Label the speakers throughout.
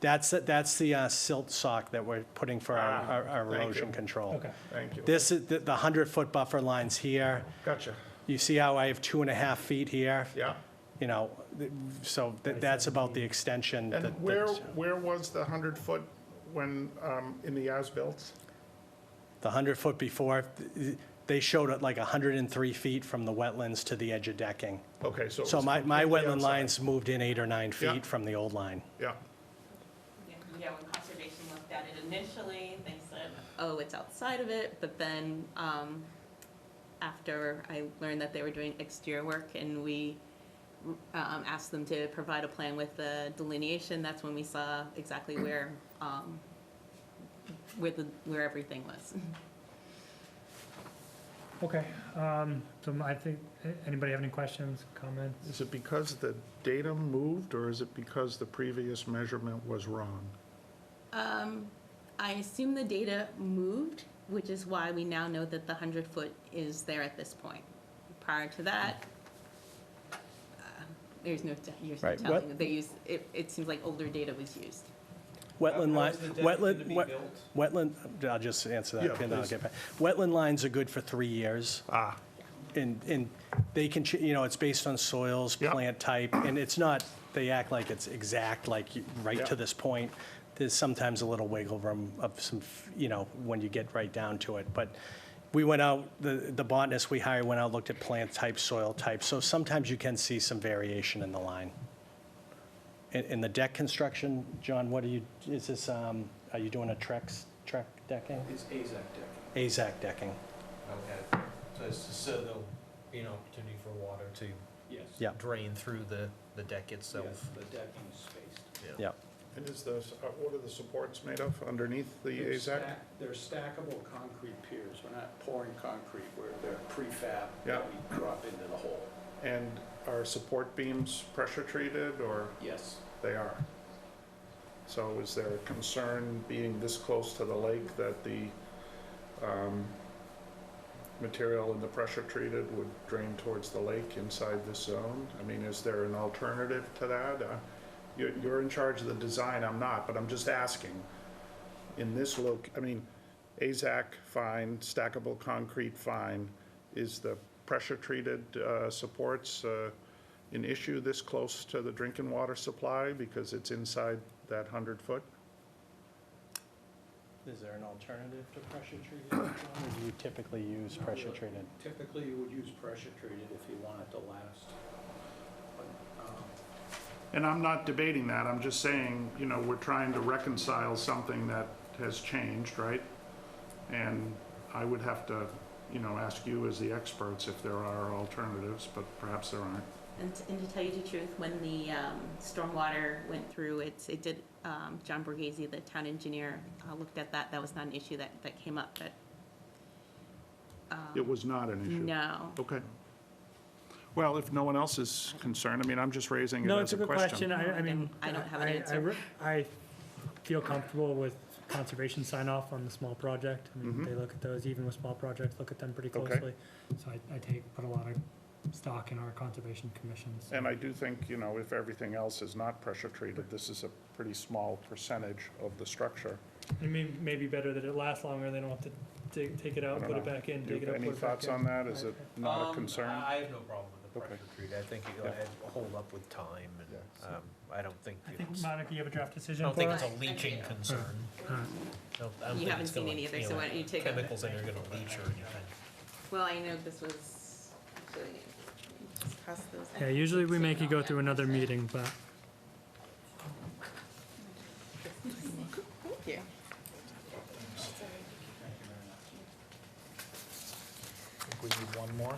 Speaker 1: That's, that's the uh, silt sock that we're putting for our-
Speaker 2: Ah,
Speaker 1: our our
Speaker 2: thank you.
Speaker 1: erosion control.
Speaker 3: Okay.
Speaker 2: Thank you.
Speaker 1: This is, the 100-foot buffer line's here.
Speaker 2: Gotcha.
Speaker 1: You see how I have two and a half feet here?
Speaker 2: Yeah.
Speaker 1: You know, th- so th- that's about the extension.
Speaker 2: And
Speaker 1: that-
Speaker 2: where,
Speaker 1: that's-
Speaker 2: where was the 100-foot when, um, in the as-built?
Speaker 1: The 100-foot before, th- they showed it like 103 feet from the wetlands to the edge of decking.
Speaker 2: Okay, so. it
Speaker 1: So
Speaker 2: was
Speaker 1: my, my
Speaker 2: completely
Speaker 1: wetland
Speaker 2: outside.
Speaker 1: lines moved in eight or nine
Speaker 2: Yeah.
Speaker 1: feet from the old line.
Speaker 2: Yeah,
Speaker 4: Yeah, yeah, when conservation looked at it initially, they said, oh, it's outside of it, but then, um, after I learned that they were doing exterior work and we, um, asked them to provide a plan with the delineation, that's when we saw exactly where, um, where the, where everything was.
Speaker 3: Okay, um, so I think, anybody have any questions, comments?
Speaker 2: is it because the datum moved, or is it because the previous measurement was wrong?
Speaker 4: I assume the data moved, which is why we now know that the hundred foot is there at this point. Prior to that, uh, there's no, te- you're
Speaker 1: Right.
Speaker 4: telling,
Speaker 1: What-
Speaker 4: they use, it, it seems like older data was used.
Speaker 1: Wetland
Speaker 5: How
Speaker 1: line,
Speaker 5: is the deck gonna
Speaker 1: wetland,
Speaker 5: be
Speaker 1: wet-
Speaker 5: built?
Speaker 1: wetland, I'll just answer
Speaker 2: Yeah,
Speaker 1: that, and then I'll
Speaker 2: please.
Speaker 1: get back. Wetland lines are good for three years.
Speaker 2: Ah,
Speaker 1: And, and they can, ch- you know, it's based on soils,
Speaker 2: Yep.
Speaker 1: plant type, and it's not, they act like it's exact, like, you- right to
Speaker 2: Yep.
Speaker 1: this point. There's sometimes a little wiggle room of some, f- you know, when you get right down to it. But we went out, the, the botanist we hired went out, looked at plant type, soil type. So sometimes you can see some variation in the line. In, in the deck construction, John, what are you, is this, um, are you doing a Trex, Trek decking?
Speaker 5: It's AZAC deck.
Speaker 1: AZAC decking,
Speaker 5: Okay. So it's, so there'll be an opportunity for water to. Yes.
Speaker 1: Yeah.
Speaker 5: Drain through the, the deck itself.
Speaker 6: The decking is spaced.
Speaker 1: yeah.
Speaker 2: and is the, uh, what are the supports made of underneath the
Speaker 6: They're
Speaker 2: AZAC?
Speaker 6: stack- They're stackable concrete piers. We're not pouring concrete, we're, they're prefab
Speaker 2: Yeah.
Speaker 6: that we drop into the hole.
Speaker 2: And are support beams pressure treated, or
Speaker 6: Yes.
Speaker 2: they are? So is there a concern being this close to the lake that the um, material in the pressure treated would drain towards the lake inside this zone? I mean, is there an alternative to that? Uh, you- You're in charge of the design, I'm not, but I'm just asking. In this loc, I mean, AZAC, fine, stackable concrete, fine. Is the pressure-treated uh, supports uh, an issue this close to the drinking water supply because it's inside that 100-foot?
Speaker 1: Is there an alternative to pressure treated, John, or do you typically use
Speaker 6: Not
Speaker 1: pressure
Speaker 6: really.
Speaker 1: treated?
Speaker 6: Typically, you would use pressure treated if you want it to last. But, um,
Speaker 2: And I'm not debating that, I'm just saying, you know, we're trying to reconcile something that has changed, right? And I would have to, you know, ask you as the experts if there are alternatives, but perhaps there aren't.
Speaker 4: And, t- and to tell you the truth, when the, um, stormwater went through, it, it did, um, John Borghese, the town engineer, uh, looked at that, that was not an issue that, that came up, but
Speaker 2: It was not an issue.
Speaker 4: no.
Speaker 2: Okay. Well, if no one else is concerned, I mean, I'm just raising it
Speaker 3: No,
Speaker 2: as
Speaker 3: it's a
Speaker 2: a
Speaker 3: good question,
Speaker 2: question.
Speaker 3: I, I mean.
Speaker 4: I don't have an
Speaker 3: I- I
Speaker 4: answer.
Speaker 3: re- I feel comfortable with conservation sign off on the small project. I mean,
Speaker 2: Mhm.
Speaker 3: they look at those, even with small projects, look at them pretty
Speaker 2: Okay.
Speaker 3: closely. So I, I take, put a lot of stock in our conservation commissions.
Speaker 2: And I do think, you know, if everything else is not pressure treated, this is a pretty small percentage of the structure.
Speaker 3: It may, may be better that it lasts longer, they don't have to take, take it
Speaker 2: I
Speaker 3: out,
Speaker 2: don't
Speaker 3: put it
Speaker 2: know.
Speaker 3: back in,
Speaker 2: Do you
Speaker 3: take it
Speaker 2: have
Speaker 3: out, put
Speaker 2: any
Speaker 3: it back
Speaker 2: thoughts
Speaker 3: in.
Speaker 2: on that? Is it not a
Speaker 5: Um,
Speaker 2: concern?
Speaker 5: I I have no problem with the
Speaker 2: Okay.
Speaker 5: pressure treat. I think it'll
Speaker 2: Yeah.
Speaker 5: add- hold up with time and, um, I don't think
Speaker 3: I think,
Speaker 5: it's, I
Speaker 3: Monica, you have a draft decision?
Speaker 5: don't think
Speaker 3: for
Speaker 5: it's
Speaker 3: us?
Speaker 5: a
Speaker 4: Alright,
Speaker 5: leaching
Speaker 4: thank you.
Speaker 5: concern.
Speaker 3: Alright.
Speaker 5: I don't- I don't
Speaker 4: You
Speaker 5: think
Speaker 4: haven't
Speaker 5: it's gonna,
Speaker 4: seen any either, so
Speaker 5: know,
Speaker 4: why don't you take a-
Speaker 5: Chemicals that are gonna leach or anything.
Speaker 4: Well, I know this was, actually, discussed those.
Speaker 3: Yeah, usually we make you go through another meeting, but
Speaker 4: Thank you.
Speaker 5: Think we need one more?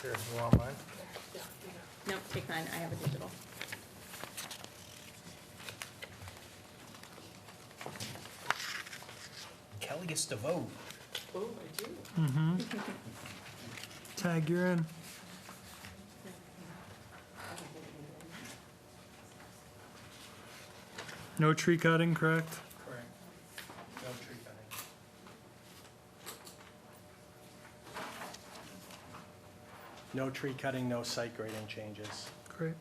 Speaker 5: Here, you want mine?
Speaker 4: Nope, take mine, I have a digital.
Speaker 5: Kelly gets to vote.
Speaker 4: Oh, I do.
Speaker 3: tag, you're in. No tree cutting, correct?
Speaker 5: Correct. No tree cutting.
Speaker 1: No tree cutting, no site grading changes.
Speaker 3: Great.